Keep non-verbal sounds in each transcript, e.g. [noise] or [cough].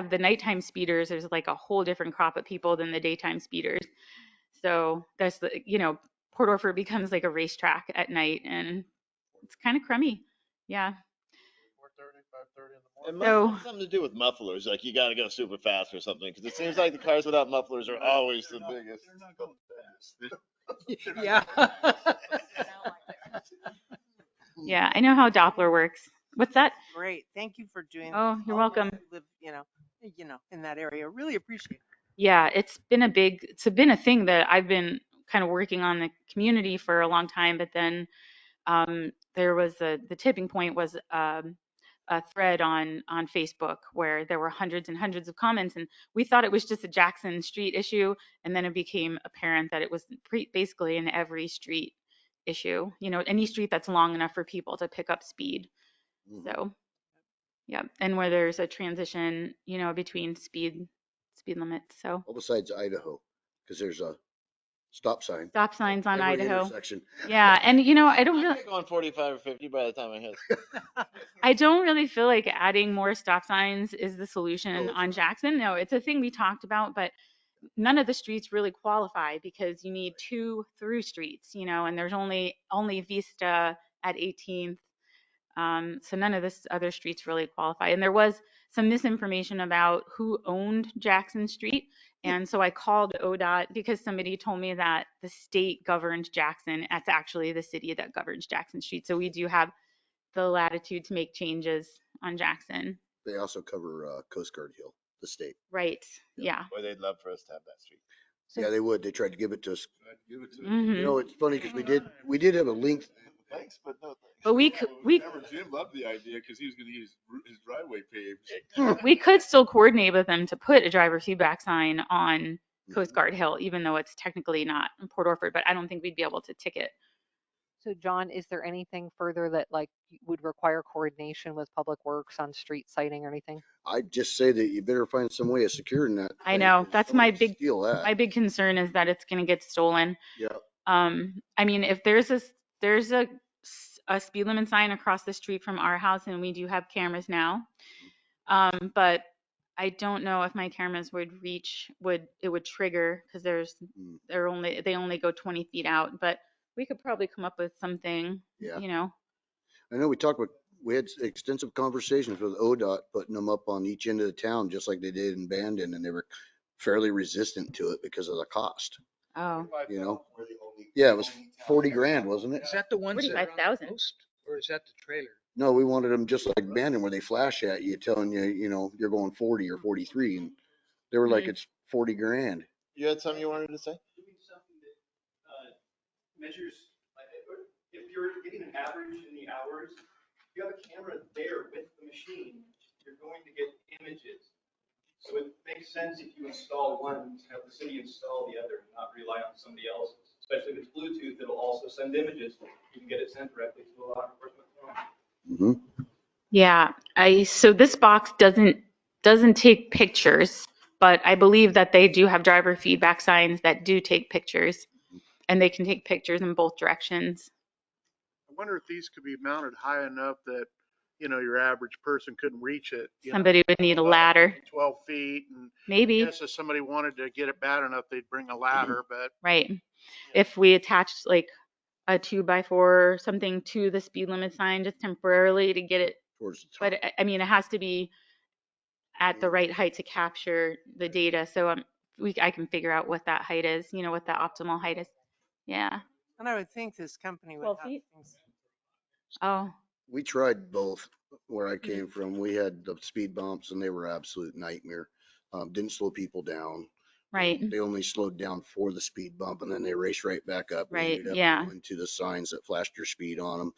have the nighttime speeders, there's like a whole different crop of people than the daytime speeders. So that's the, you know, Port Orford becomes like a racetrack at night and it's kind of crummy. Yeah. Four thirty, five thirty in the It morning. So- must have something to do with mufflers, like you gotta go super fast or something, because it seems like the cars without mufflers are always the They're not- biggest. They're not going fast. [laughs] Yeah. [laughs] Yeah. I know how Doppler works. What's that? Great. Thank you for doing. Oh, this. you're All of us welcome. who Live, you know, eh, you know, in that area. Really appreciate it. Yeah, it's been a big, it's been a thing that I've been kind of working on the community for a long time, but then um, there was a, the tipping point was um, a thread on on Facebook where there were hundreds and hundreds of comments, and we thought it was just a Jackson Street issue, and then it became apparent that it was pre- basically an every street issue, you know, any street that's long enough for people to pick up speed. Mhm. So, yeah, and where there's a transition, you know, between speed speed limits. So Well, besides Idaho, because there's a stop sign. stop signs on every Idaho. intersection. Yeah, and you know, I [laughs] don't I'm really, going forty-five or fifty by the time I hit. I don't really feel like adding more stop signs is the solution it's on Jackson. No, it's a thing we talked about, but none of the streets really qualify because you need two through streets, you know, and there's only only Vista at 18th. Um, so none of this other streets really qualify. And there was some misinformation about who owned Jackson Street. And so I called ODOT because somebody told me that the state governs Jackson. That's actually the city that governs Jackson Street. So we do have the latitude to make changes on Jackson. They also cover uh, Coast Guard Hill, the state. Right. Yeah. Boy, they'd love for us to have that street. So- Yeah, they would. They tried to give it to us. Give it to them. You hmm know, it's funny because we did, we did have a link. Thanks, but no thanks. But we could, we, Remember, Jim loved the idea because he was gonna get his, ru- his driveway paved. we could still coordinate with them to put a driver feedback sign on Mm-hmm. Coast Guard Hill, even though it's technically not in Port Orford, but I don't think we'd be able to ticket. So John, is there anything further that like y- would require coordination with Public Works on street sighting or anything? I'd just say that you better find some way of securing that. I thing, know, 'cause that's my somebody big- Steal My that. big concern is that it's gonna get stolen. Yeah. Um, I mean, if there's a, s- there's a, s- a speed limit sign across the street from our house and we do have cameras now. Um, but I don't know if my cameras would reach, would, it would trigger, cause there's, Mm. they're only, they only go twenty feet out, but we could probably come up with something, Yeah. you know? I know we talked with, we had extensive conversations with ODOT, putting them up on each end of the town, just like they did in Bandon, and they were fairly resistant to it because of the cost. Oh. You know? Yeah, it was forty grand, wasn't it? Is that the ones that are on 45,000. the post, or is that the trailer? No, we wanted them just like Bandon where they flash at you, telling you, you know, you're going forty or forty-three and they were like, Mhm. it's forty grand. [laughs] You had something you wanted to say? doing something that uh, measures, like, if you're- if you're getting an average in the hours, if you have a camera there with the machine, you're going to get images. So it makes sense if you install one, to have the city install the other, and not rely on somebody else, especially if it's Bluetooth, it'll also send images. You can get it sent directly to a law enforcement. phone. Mhm. Yeah, I, so this box doesn't, doesn't take pictures, but I believe that they do have driver feedback signs that do take pictures. And they can take pictures in both directions. I wonder if these could be mounted high enough that, you know, your average person couldn't reach it. you know, Somebody would need a ladder, Twelve feet and maybe, yes, if somebody wanted to get it bad enough, they'd bring a ladder, but right? If we attached like a two by four or something to the speed limit sign just temporarily to get it, Towards the but top. I, I mean, it has to be at the right height to capture the data, so um, we, I can figure out what that height is, you know, what the optimal height is. Yeah, And I would think this company would Twelve have feet? things. oh. We tried both where I Mm-hmm. came from. We had the speed bumps and they were absolute nightmare. Um, didn't slow people down. Right. They only slowed down for the speed bump and then they raced right back up. and Right, ended up yeah. going to the signs that flashed your speed on them.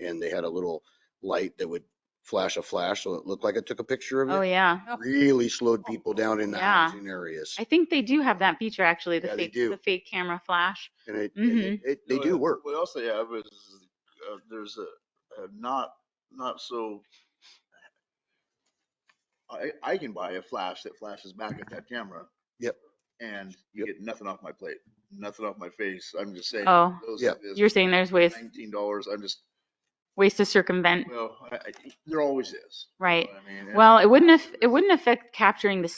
And they had a little light that would flash a flash, so it looked like I took a picture of Oh, it. yeah. Really slowed people down in the Yeah. housing areas. I think they do have that feature actually, the Yeah, they fake, do. the fake camera flash. And it, and it- Mm-hmm. it, they do work. What else they have is, uh, there's a, a not, not so. I, I can buy a flash that flashes back at that camera. Yep. And you get nothing off my plate, nothing off my face. I'm just saying. Oh, those Yeah. is you're saying there's ways. Nineteen dollars, I'm just, ways to circumvent, Well, I- I- there always is. right? I mean, and- Well, it wouldn't, aff- it wouldn't affect capturing the